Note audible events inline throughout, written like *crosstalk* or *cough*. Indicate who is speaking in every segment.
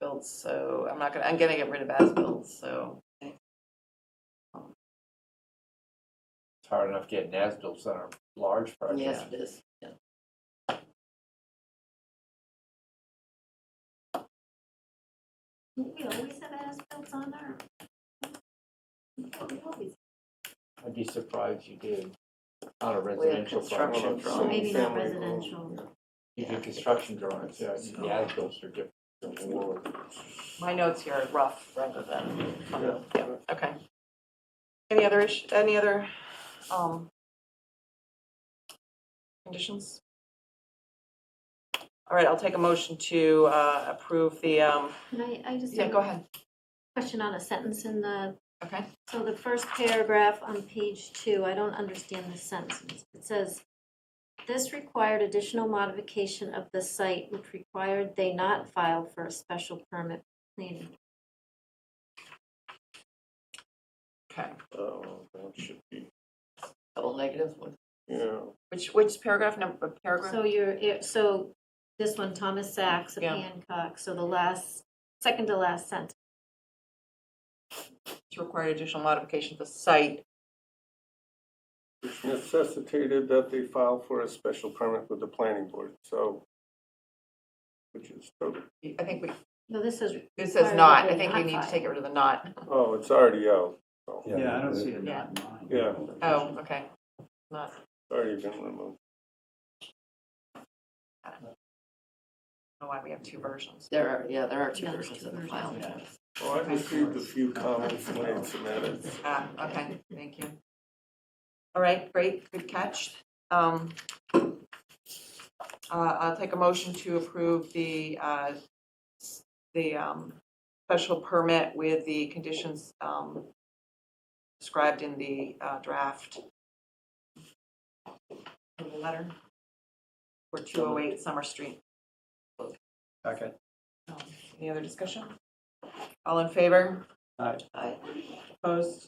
Speaker 1: bills, so I'm not gonna, I'm gonna get rid of as bills, so.
Speaker 2: It's hard enough getting ASBILs on our large projects.
Speaker 1: Yes, it is, yeah.
Speaker 3: We always have as-bills on our. We always-
Speaker 2: I'd be surprised you did on a
Speaker 1: have
Speaker 2: residential
Speaker 1: construction
Speaker 2: project.
Speaker 1: drawings.
Speaker 3: Maybe not
Speaker 4: Family home,
Speaker 3: residential.
Speaker 2: You
Speaker 1: Yeah.
Speaker 2: do construction drawings, yeah, the ASBILs are different. than the world.
Speaker 1: My notes here are rough rather than,
Speaker 4: Yeah.
Speaker 1: yeah, okay. Any other issue, any other, um, conditions? All right, I'll take a motion to, uh, approve the, um,
Speaker 3: Can I, I just
Speaker 1: yeah,
Speaker 3: have
Speaker 1: go
Speaker 3: a
Speaker 1: ahead,
Speaker 3: question on a sentence in the,
Speaker 1: okay?
Speaker 3: so the first paragraph on page two, I don't understand this sentence. It says, this required additional modification of the site, which required they not file for a special permit planning.
Speaker 1: Okay,
Speaker 4: Oh, that should be,
Speaker 1: double negatives, what-
Speaker 4: yeah.
Speaker 1: which, which paragraph number,
Speaker 3: So
Speaker 1: paragraph?
Speaker 3: you're, it- so this one, Thomas Sachs of
Speaker 1: Yeah.
Speaker 3: Hancock, so the last, second to last sentence.
Speaker 1: To require additional modification of the site,
Speaker 4: Which necessitated that they file for a special permit with the planning board, so. Which is, totally-
Speaker 1: I think we,
Speaker 3: No, this is,
Speaker 1: it
Speaker 3: Require
Speaker 1: says
Speaker 3: that
Speaker 1: not, I
Speaker 3: they
Speaker 1: think we
Speaker 3: not
Speaker 1: need to
Speaker 3: file.
Speaker 1: take it rid of the not.
Speaker 4: oh, it's already out,
Speaker 5: Yeah, I don't see a
Speaker 1: Yeah.
Speaker 5: dot line.
Speaker 4: Yeah.
Speaker 1: Oh, okay, not,
Speaker 4: It's already been removed.
Speaker 1: oh, why we have two versions.
Speaker 6: There are, yeah, there are two
Speaker 3: Yeah, there's
Speaker 6: versions
Speaker 3: two
Speaker 6: of the
Speaker 3: versions.
Speaker 6: file.
Speaker 4: Well, Oh, I received a few comments and made some edits.
Speaker 1: Ah, okay, thank you. All right, great, good catch. Um, uh, I'll take a motion to approve the, uh, s- the um, special permit with the conditions um, described in the uh, draft of the letter for 208 Summer Street.
Speaker 5: Okay.
Speaker 1: Um, Any other discussion? All in favor?
Speaker 5: Aye.
Speaker 1: Aye. Opposed?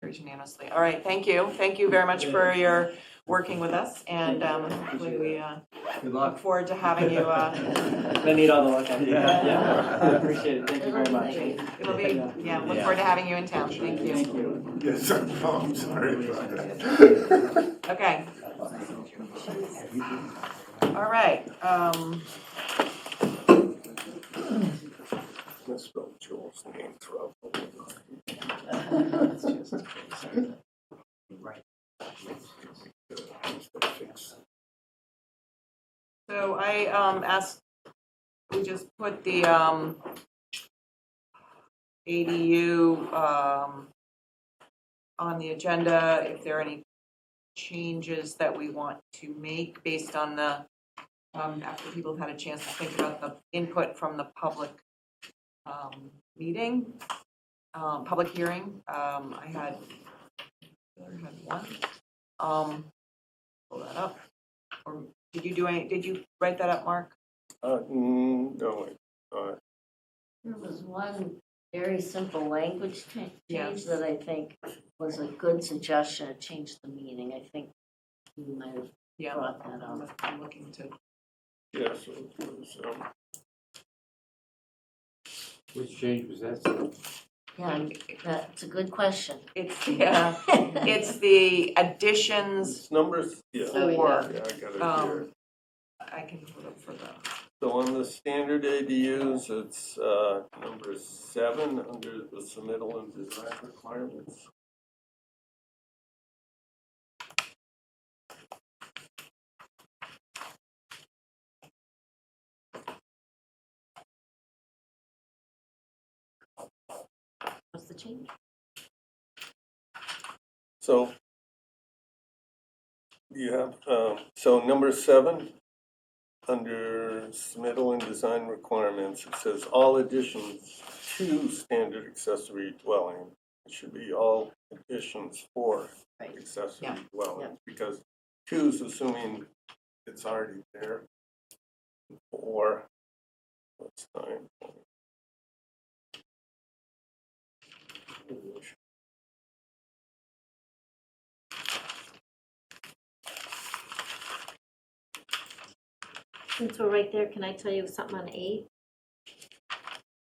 Speaker 1: Carries unanimously. All right, thank you. Thank you very much for your working with us, and um, hopefully we uh,
Speaker 5: Good
Speaker 1: look
Speaker 5: luck.
Speaker 1: forward to having you. uh,
Speaker 5: I need all the luck I can get. Yeah, I appreciate it. *laughs* Thank you very much.
Speaker 1: It'll be, yeah, look forward to having you in town. Thank you.
Speaker 5: Thank you.
Speaker 4: Yes, *laughs* oh, I'm sorry about
Speaker 1: Okay. All right. um,
Speaker 4: Misspelled Joel's name throughout.
Speaker 5: Right.
Speaker 1: So I um, asked, we just put the um, ADU um, on the agenda, if there are any changes that we want to make based on the, um, after people have had a chance to think about the input from the public um, meeting, um, public hearing. Um, I had, I had one. Um, Pull that up. Or did you do any, did you write that up, Mark?
Speaker 4: Uh, mm, no, wait, uh,
Speaker 6: There was one very simple language cha-
Speaker 1: Yeah.
Speaker 6: change that I think was a good suggestion, It changed the meaning, I think you might have
Speaker 1: Yeah.
Speaker 6: brought that
Speaker 1: I'm
Speaker 6: up.
Speaker 1: I'm looking to,
Speaker 4: yes, it was, um,
Speaker 2: Which change was that?
Speaker 6: Yeah, that's a good question.
Speaker 1: it's, yeah, *laughs* it's the additions,
Speaker 4: it's numbers, yeah.
Speaker 6: Oh, yeah.
Speaker 4: Yeah, I got it here.
Speaker 1: um, I can put up for the,
Speaker 4: So on the standard ADUs, it's uh, number seven, under the submittal and design requirements.
Speaker 6: What's the change?
Speaker 4: So you have, um, so number seven, under submittal and design requirements, it says all additions to standard accessory dwelling. It should be all additions for
Speaker 6: Right.
Speaker 4: accessory
Speaker 1: Yeah.
Speaker 4: dwelling, because two's assuming it's already there. Four, what's nine?
Speaker 3: Since we're right there, can I tell you something on eight?